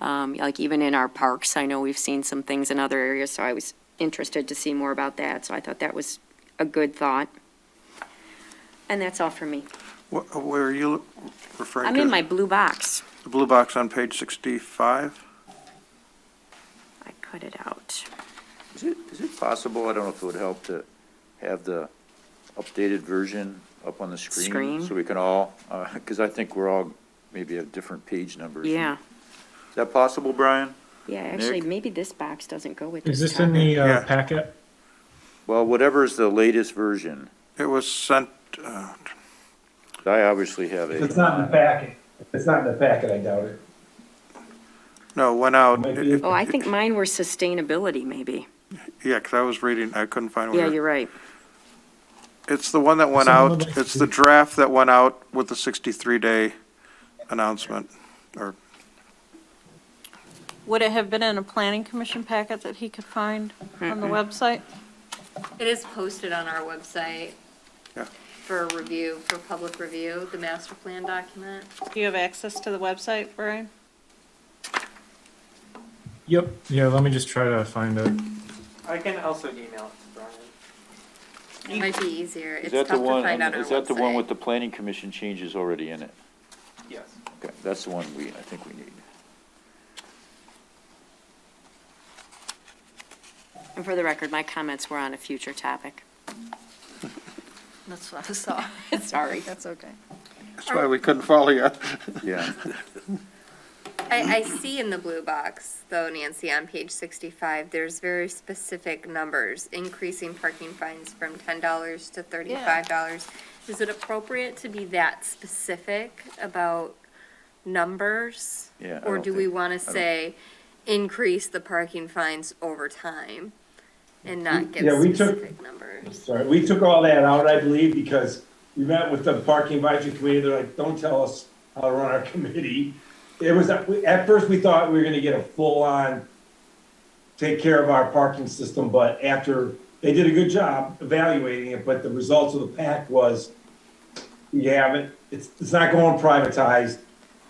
Um, Like even in our parks, I know we've seen some things in other areas, so I was interested to see more about that. So I thought that was a good thought. And that's all for me. Wh- Where are you referring to? I'm in my blue box. The blue box on page 65? I cut it out. Is it, is it possible, I don't know if it would help to have the updated version up on the screen? Screen? So we can all, because I think we're all maybe have different page numbers. Yeah, Is that possible, Brian? yeah, actually, Nick? maybe this box doesn't go with Is this. this in topic. the uh, Yeah. packet? Well, whatever is the latest version, It was sent, uh, I obviously have If it's a, not in the packet, if it's not in the packet, I doubt it. no, went out. Might It- be- it- Oh, I think mine were sustainability, maybe. Yeah, because I was reading, I couldn't find Yeah, where. you're right. It's the one that went Some of out, them- it's the draft that went out with the 63-day announcement. Would it have been in a planning commission packet that he could find on the website? It is posted on our website Yeah. for review, for public review, the master plan document. Do you have access to the website, Brian? Yep, yeah, let me just try to find it. I can also email it to Brian. It might be easier. is It's tough that to the one, um, find on our is that the one website. with the planning commission changes already in it? Yes. Okay, that's the one we, I think we need. And for the record, my comments were on a future topic. That's what I saw. Sorry. That's okay. That's why we couldn't follow you. Yeah, I, I see in the blue box, though, Nancy, on page sixty-five, there's very specific numbers, increasing parking fines from ten dollars to thirty-five dollars. Is it appropriate to be that specific about numbers? Yeah, I Or don't do we think- wanna don't- say, increase the parking fines over time? And not give yeah, we took- specific numbers? Sorry, we took all that out, I believe, because we met with the parking advisory committee, they're like, don't tell us how to run our committee. It was, at first, we thought we were gonna get a full-on, take care of our parking system, but after, they did a good job evaluating it, but the results of the pack was, we haven't, it's, it's not going privatized,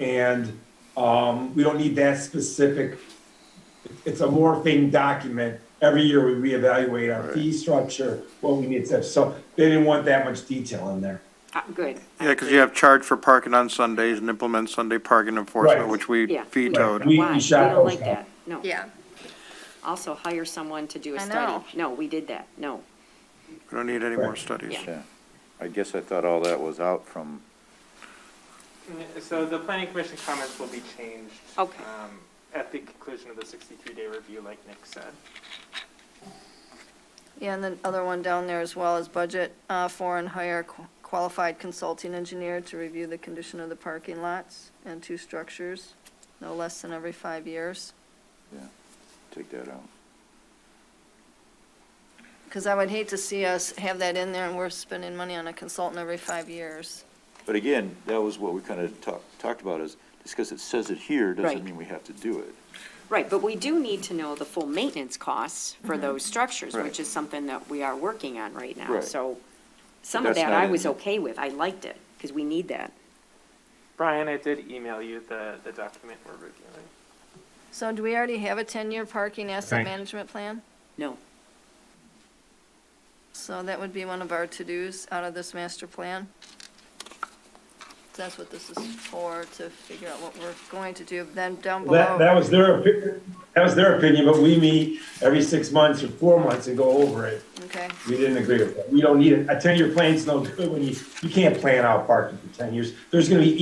and, um, we don't need that specific it's a morphing document. Every year we reevaluate our fee structure, what we need to, so they didn't want that much detail in there. Uh, Good. Yeah, because you have charge for parking on Sundays and implement Sunday parking enforcement, Right. which we Yeah. vetoed. We- we Why? We shot don't those like that. down. No. Yeah, Also hire someone to do a I study. know. No, we did that. No. We don't need any more studies. Yeah. yeah. I guess I thought all that was out from, N- So the planning commission comments will be changed. Okay. um, At the conclusion of the sixty-three day review, like Nick said. Yeah, and the other one down there as well is budget uh, for and hire qu- qualified consulting engineer to review the condition of the parking lots and two structures, no less than every five years. take that out. Because I would hate to see us have that in there and we're spending money on a consultant every five years. But again, that was what we kind of talked, talked about is, just because it says it here Right. doesn't mean we have to do it. Right, but we do need to know the full maintenance costs for Mm-hmm. those structures, Right. which is something that we are working on right now. Right. So some of that's that not I in was the- okay with. I liked it because we need that. Brian, I did email you the, the document we're reviewing. So do we already have a 10-year parking asset Right. management plan? No. So that would be one of our to-dos out of this master plan. That's what this is for, to figure out what we're going to do. Then down below. That, that was their, opi- that was their opinion, but we meet every six months or four months and go over it. Okay, We didn't agree with that. We don't need it. A ten-year plan's no good when you, you can't plan out parking for ten years. There's gonna be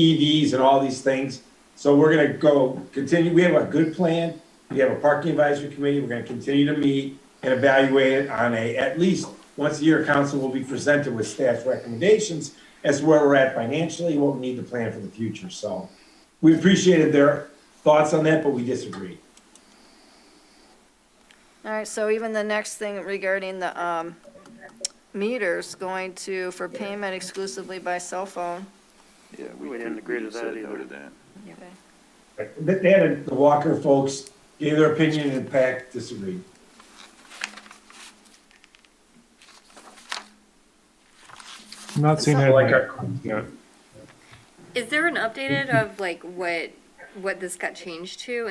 EVs and all these things. So we're gonna go, continue, we have a good plan. We have a parking advisory committee. We're gonna continue to meet and evaluate it on a, at least, once a year, council will be presented with staff recommendations as to where we're at financially, what we need to plan for the future. So we appreciated their thoughts on that, but we disagreed. all right, so even the next thing regarding the, um, meters going to, for payment exclusively by cell phone. Yeah, We didn't agree to just that said no either. to that. They, they had, the Walker folks gave their opinion and PAC disagreed. I'm not seeing it. Like our- yet. Is there an updated of like what, what this got changed to